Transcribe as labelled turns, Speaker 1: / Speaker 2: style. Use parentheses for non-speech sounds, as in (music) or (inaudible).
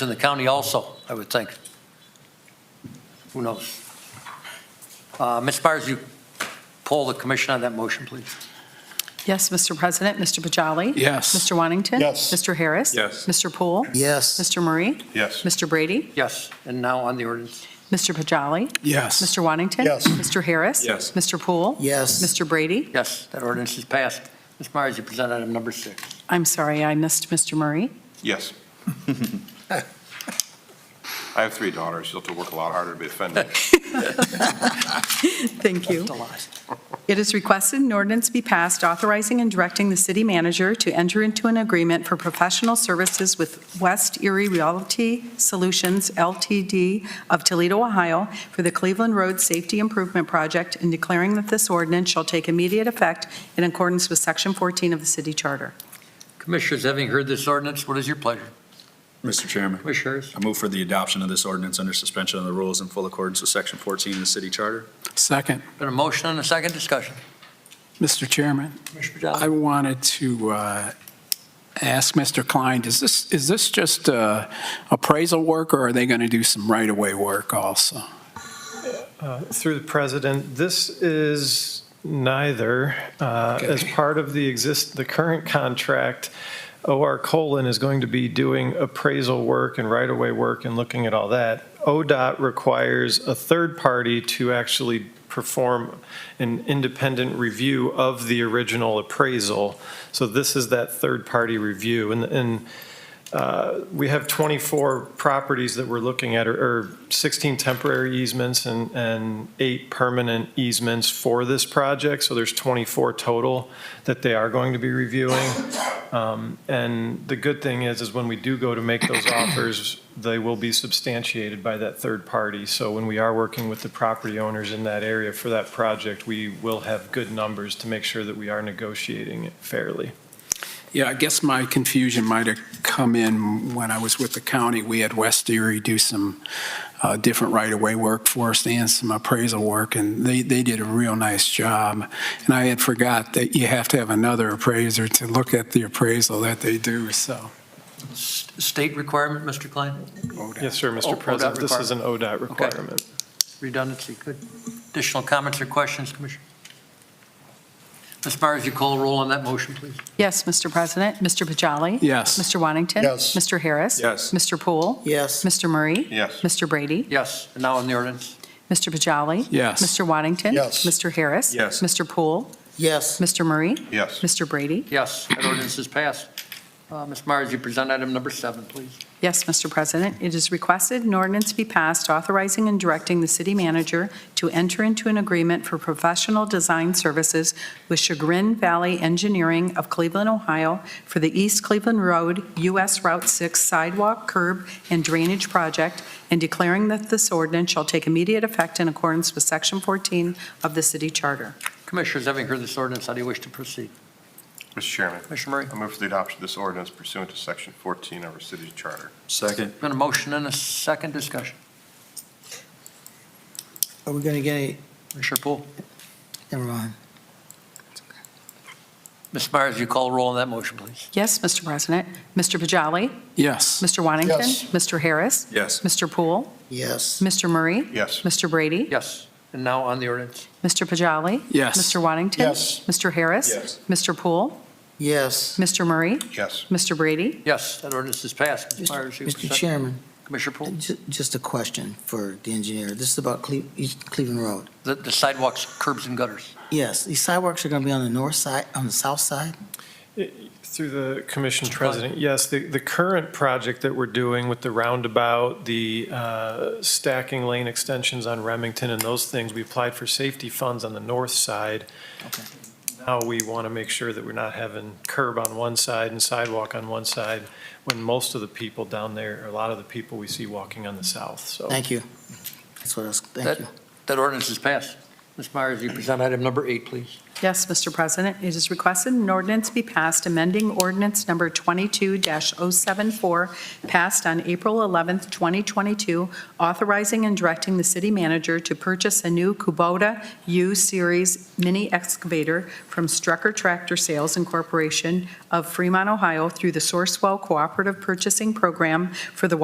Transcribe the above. Speaker 1: in the county also, I would think. Who knows? Uh, Ms. Byers, you poll the commission on that motion, please.
Speaker 2: Yes, Mr. President, Mr. Bajali.
Speaker 3: Yes.
Speaker 2: Mr. Wantington.
Speaker 4: Yes.
Speaker 2: Mr. Harris.
Speaker 3: Yes.
Speaker 2: Mr. Poole.
Speaker 4: Yes.
Speaker 2: Mr. Murray.
Speaker 3: Yes.
Speaker 2: Mr. Brady.
Speaker 1: Yes, and now on the ordinance.
Speaker 2: Mr. Bajali.
Speaker 3: Yes.
Speaker 2: Mr. Wantington.
Speaker 4: Yes.
Speaker 2: Mr. Harris.
Speaker 3: Yes.
Speaker 2: Mr. Poole.
Speaker 4: Yes.
Speaker 2: Mr. Brady.
Speaker 1: Yes, that ordinance is passed. Ms. Myers, you present item number six.
Speaker 2: I'm sorry, I missed Mr. Murray.
Speaker 5: Yes. (laughs) I have three daughters. You'll have to work a lot harder to be offended.
Speaker 2: Thank you.
Speaker 1: The last.
Speaker 2: It is requested an ordinance be passed authorizing and directing the city manager to enter into an agreement for professional services with West Erie Realty Solutions LTD of Toledo, Ohio, for the Cleveland Road Safety Improvement Project and declaring that this ordinance shall take immediate effect in accordance with Section 14 of the city charter.
Speaker 1: Commissioners, having heard this ordinance, what is your pleasure?
Speaker 3: Mr. Chairman,
Speaker 1: Commissioners,
Speaker 3: I move for the adoption of this ordinance under suspension of the rules in full accordance with Section 14 of the city charter.
Speaker 6: Second,
Speaker 1: been a motion and a second discussion.
Speaker 6: Mr. Chairman,
Speaker 1: Commissioner
Speaker 6: I
Speaker 1: Pajano?
Speaker 6: wanted to uh, ask Mr. Klein, is this, is this just uh, appraisal work, or are they going to do some right-of-way work also?
Speaker 7: Uh, Through the president, this is neither. Uh, As
Speaker 6: Okay.
Speaker 7: part of the exist, the current contract, OR colon is going to be doing appraisal work and right-of-way work and looking at all that. ODOT requires a third party to actually perform an independent review of the original appraisal. So this is that third-party review. And, and uh, we have 24 properties that we're looking at, or- or 16 temporary easements and, and eight permanent easements for this project. So there's 24 total that they are going to be reviewing. Um, And the good thing is, is when we do go to make those offers, they will be substantiated by that third party. So when we are working with the property owners in that area for that project, we will have good numbers to make sure that we are negotiating it fairly.
Speaker 6: Yeah, I guess my confusion might have come in when I was with the county. We had West Erie do some uh, different right-of-way work for us and some appraisal work, and they, they did a real nice job. And I had forgot that you have to have another appraiser to look at the appraisal that they do, so.
Speaker 1: S- State requirement, Mr. Klein?
Speaker 7: Yes, sir,
Speaker 1: Oh,
Speaker 7: Mr.
Speaker 1: ODOT
Speaker 7: President, this is an ODOT requirement.
Speaker 1: Redundancy, good. Additional comments or questions, Commissioner? Ms. Myers, you call roll on that motion, please.
Speaker 2: Yes, Mr. President, Mr. Bajali.
Speaker 6: Yes.
Speaker 2: Mr. Wantington.
Speaker 4: Yes.
Speaker 2: Mr. Harris.
Speaker 3: Yes.
Speaker 2: Mr. Poole.
Speaker 4: Yes.
Speaker 2: Mr. Murray.
Speaker 5: Yes.
Speaker 2: Mr. Brady.
Speaker 1: Yes, and now on the ordinance.
Speaker 2: Mr. Bajali.
Speaker 6: Yes.
Speaker 2: Mr. Waddington.
Speaker 4: Yes.
Speaker 2: Mr. Harris.
Speaker 3: Yes.
Speaker 2: Mr. Poole.
Speaker 4: Yes.
Speaker 2: Mr. Murray. (laughs)
Speaker 5: Yes.
Speaker 2: Mr. Brady.
Speaker 1: Yes, that ordinance is passed. Uh, Ms. Myers, you present item number seven, please.
Speaker 2: Yes, Mr. President, it is requested an ordinance be passed authorizing and directing the city manager to enter into an agreement for professional design services with Chagrin Valley Engineering of Cleveland, Ohio for the East Cleveland Road US Route 6 sidewalk, curb, and drainage project, and declaring that this ordinance shall take immediate effect in accordance with Section 14 of the city charter.
Speaker 1: Commissioners, having heard this ordinance, how do you wish to proceed?
Speaker 5: Mr. Chairman,
Speaker 1: Commissioner Murray?
Speaker 5: I move for the adoption of this ordinance pursuant to Section 14 of our city's charter.
Speaker 3: Second.
Speaker 1: Been a motion and a second discussion.
Speaker 4: Are we going to get any,
Speaker 1: Commissioner Poole?
Speaker 4: never mind.
Speaker 1: Ms. Myers, you call roll on that motion, please.
Speaker 2: Yes, Mr. President. Mr. Bajali.
Speaker 6: Yes.
Speaker 2: Mr. Wantington.
Speaker 4: Yes.
Speaker 2: Mr. Harris.
Speaker 3: Yes.
Speaker 2: Mr. Poole.
Speaker 4: Yes.
Speaker 2: Mr. Murray.
Speaker 5: Yes.
Speaker 2: Mr. Brady.
Speaker 1: Yes, and now on the ordinance.
Speaker 2: Mr. Pajali?
Speaker 6: Yes.
Speaker 2: Mr. Waddington?
Speaker 4: Yes.
Speaker 2: Mr. Harris?
Speaker 3: Yes.
Speaker 2: Mr. Poole?
Speaker 4: Yes.
Speaker 2: Mr. Murray?
Speaker 5: Yes.
Speaker 2: Mr. Brady?
Speaker 1: Yes, that ordinance is passed. Ms. Myers, you
Speaker 4: Mr.
Speaker 1: present-
Speaker 4: Chairman,
Speaker 1: Commissioner Poole,
Speaker 4: ju- just a question for the engineer. This is about Cle- East Cleveland Road.
Speaker 1: the the sidewalks, curbs, and gutters.
Speaker 4: Yes, these sidewalks are going to be on the north side, on the south side?
Speaker 7: Through the commission
Speaker 1: Mr. Klein.
Speaker 7: president, yes, the, the current project that we're doing with the roundabout, the uh, stacking lane extensions on Remington and those things, we applied for safety funds on the north side.
Speaker 4: Okay.
Speaker 7: Now we want to make sure that we're not having curb on one side and sidewalk on one side when most of the people down there, or a lot of the people we see walking on the south, so.
Speaker 4: Thank you. That's what I was, thank
Speaker 1: That-
Speaker 4: you.
Speaker 1: That ordinance is passed. Ms. Myers, you present item number eight, please.
Speaker 2: Yes, Mr. President, it is requested an ordinance be passed amending ordinance number 22-074, passed on April 11th, 2022, authorizing and directing the city manager to purchase a new Kubota U-Series mini excavator from Strucker Tractor Sales Incorporation of Fremont, Ohio, through the Sourcewell Cooperative Purchasing Program for the